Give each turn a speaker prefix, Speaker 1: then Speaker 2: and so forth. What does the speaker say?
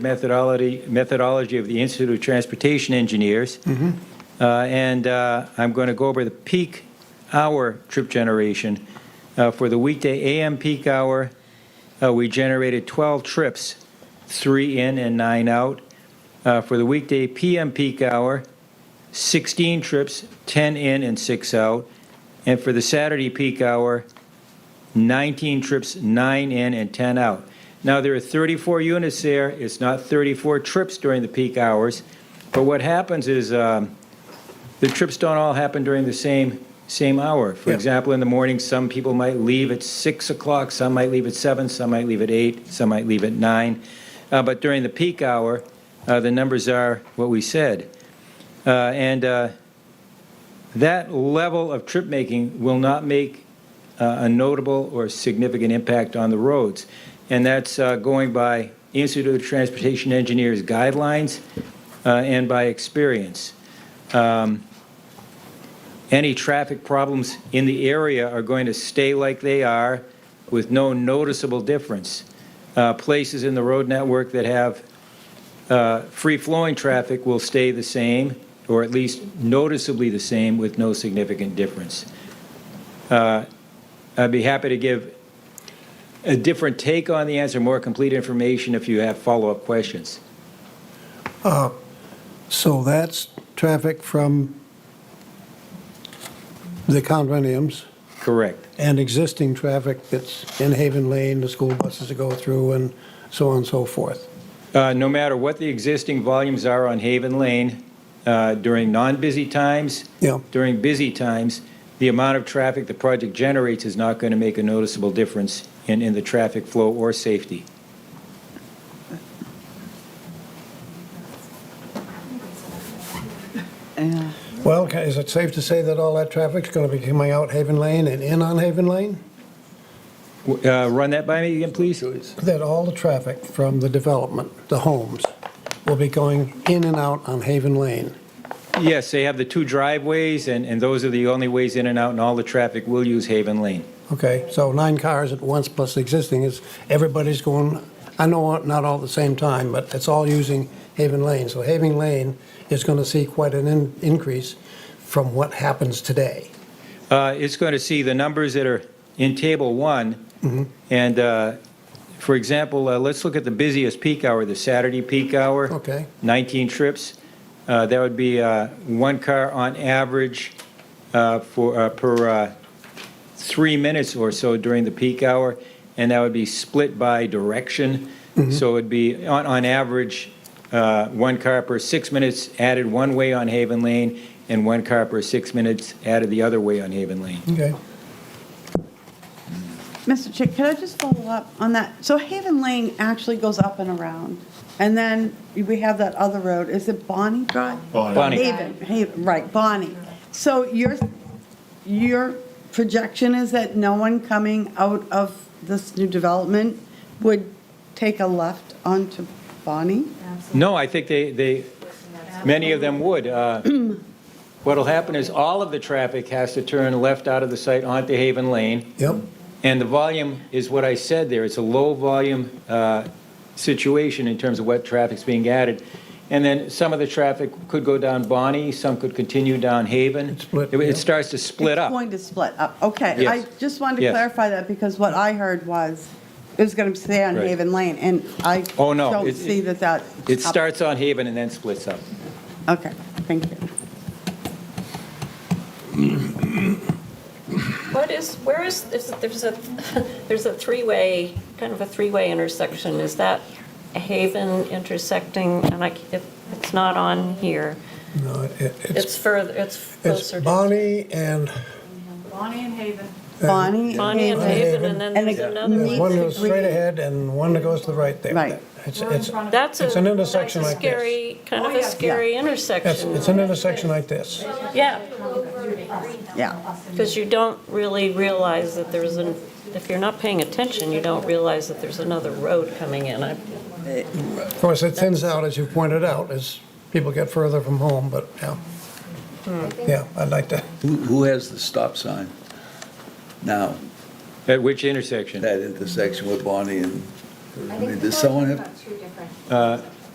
Speaker 1: methodology, methodology of the Institute of Transportation Engineers. Uh, And uh, I'm going to go over the peak hour trip generation. Uh, For the weekday AM peak hour, uh, we generated 12 trips, three in and nine out. Uh, For the weekday PM peak hour, 16 trips, 10 in and six out. And for the Saturday peak hour, 19 trips, nine in and 10 out. Now, there are 34 units there. It's not 34 trips during the peak hours. But what happens is um, the trips don't all happen during the same, same hour. For
Speaker 2: Yeah.
Speaker 1: example, in the morning, some people might leave at 6 o'clock, some might leave at 7, some might leave at 8, some might leave at 9. Uh, But during the peak hour, uh, the numbers are what we said. Uh, And uh, that level of trip making will not make uh, a notable or significant impact on the roads. And that's uh, going by Institute of Transportation Engineers guidelines uh, and by experience. Um, Any traffic problems in the area are going to stay like they are with no noticeable difference. Uh, Places in the road network that have uh, free-flowing traffic will stay the same, or at least noticeably the same, with no significant difference. Uh, I'd be happy to give a different take on the answer, more complete information if you have follow-up questions.
Speaker 2: So that's traffic from the condominiums
Speaker 1: Correct.
Speaker 2: and existing traffic that's in Haven Lane, the school buses that go through and so on and so forth.
Speaker 1: Uh, No matter what the existing volumes are on Haven Lane, uh, during non-busy times,
Speaker 2: Yeah,
Speaker 1: during busy times, the amount of traffic the project generates is not going to make a noticeable difference in, in the traffic flow or safety.
Speaker 3: Yeah.
Speaker 2: well, ca- is it safe to say that all that traffic's going to be coming out Haven Lane and in on Haven Lane?
Speaker 1: W- uh, Run that by me again, please?
Speaker 2: That all the traffic from the development, the homes, will be going in and out on Haven Lane?
Speaker 1: Yes, they have the two driveways, and, and those are the only ways in and out, and all the traffic will use Haven Lane.
Speaker 2: Okay, so nine cars at once plus the existing is, everybody's going, I know not all at the same time, but it's all using Haven Lane. So Haven Lane is going to see quite an in- increase from what happens today.
Speaker 1: Uh, It's going to see the numbers that are in Table 1. And, uh, for example, uh, let's look at the busiest peak hour, the Saturday peak hour.
Speaker 2: Okay,
Speaker 1: 19 trips. Uh, That would be uh, one car on average uh, for, uh, per uh, three minutes or so during the peak hour, and that would be split by direction. So it'd be, on, on average, uh, one car per six minutes added one way on Haven Lane, and one car per six minutes added the other way on Haven Lane.
Speaker 2: okay.
Speaker 3: Mr. Chick, could I just follow up on that? So Haven Lane actually goes up and around, and then we have that other road, is it Bonnie Drive?
Speaker 4: Bonnie.
Speaker 1: Bonnie.
Speaker 3: Haven, Haven, right, Bonnie. So your, your projection is that no one coming out of this new development would take a left onto Bonnie?
Speaker 1: No, I think they, they, many of them would. Uh, What'll happen is all of the traffic has to turn left out of the site onto Haven Lane,
Speaker 2: Yep,
Speaker 1: And the volume is what I said there, it's a low-volume uh, situation in terms of what traffic's being added. And then some of the traffic could go down Bonnie, some could continue down Haven.
Speaker 2: It's split,
Speaker 1: It-
Speaker 2: yeah.
Speaker 1: It starts to split
Speaker 3: It's
Speaker 1: up.
Speaker 3: going to split up, okay.
Speaker 1: Yes.
Speaker 3: I just wanted to
Speaker 1: Yes.
Speaker 3: clarify that, because what I heard was, it was going to stay on
Speaker 1: Right.
Speaker 3: Haven Lane, and I
Speaker 1: Oh, no,
Speaker 3: don't
Speaker 1: it-
Speaker 3: see that that.
Speaker 1: It starts on Haven and then splits up.
Speaker 3: Okay, thank you.
Speaker 5: What is, where is, there's a- there's a, there's a three-way, kind of a three-way intersection. Is that a Haven intersecting? And I, c- it- it's not on here.
Speaker 2: no, it-
Speaker 5: It's
Speaker 2: it's,
Speaker 5: further, it's
Speaker 2: it's
Speaker 5: closer. to-
Speaker 2: Bonnie and,
Speaker 6: Bonnie and Haven.
Speaker 3: Bonnie.
Speaker 5: Bonnie and
Speaker 2: Haven.
Speaker 5: Haven, and then
Speaker 3: And
Speaker 5: there's
Speaker 3: it
Speaker 5: another
Speaker 2: there's
Speaker 5: one.
Speaker 2: one goes straight ahead and one that goes to the right there.
Speaker 3: Right.
Speaker 2: It's,
Speaker 6: We're in
Speaker 2: it's,
Speaker 6: front of.
Speaker 5: That's a.
Speaker 2: It's an intersection
Speaker 5: that's a
Speaker 2: like this.
Speaker 5: Scary, kind
Speaker 6: Oh,
Speaker 5: of
Speaker 6: yeah.
Speaker 5: a
Speaker 6: Yeah.
Speaker 5: scary
Speaker 2: it's
Speaker 5: intersection.
Speaker 2: it's an intersection like this.
Speaker 5: Yeah,
Speaker 3: Yeah,
Speaker 5: because you don't really realize that there's an, if you're not paying attention, you don't realize that there's another road coming in. I-
Speaker 2: Of course, it thins out, as you pointed out, as people get further from home, but, yeah.
Speaker 6: Hmm.
Speaker 2: Yeah, I'd like to.
Speaker 7: Who who has the stop sign now,
Speaker 1: At which intersection?
Speaker 7: that intersection with Bonnie and
Speaker 8: I mean, Does someone have,
Speaker 7: Two different.
Speaker 1: Uh,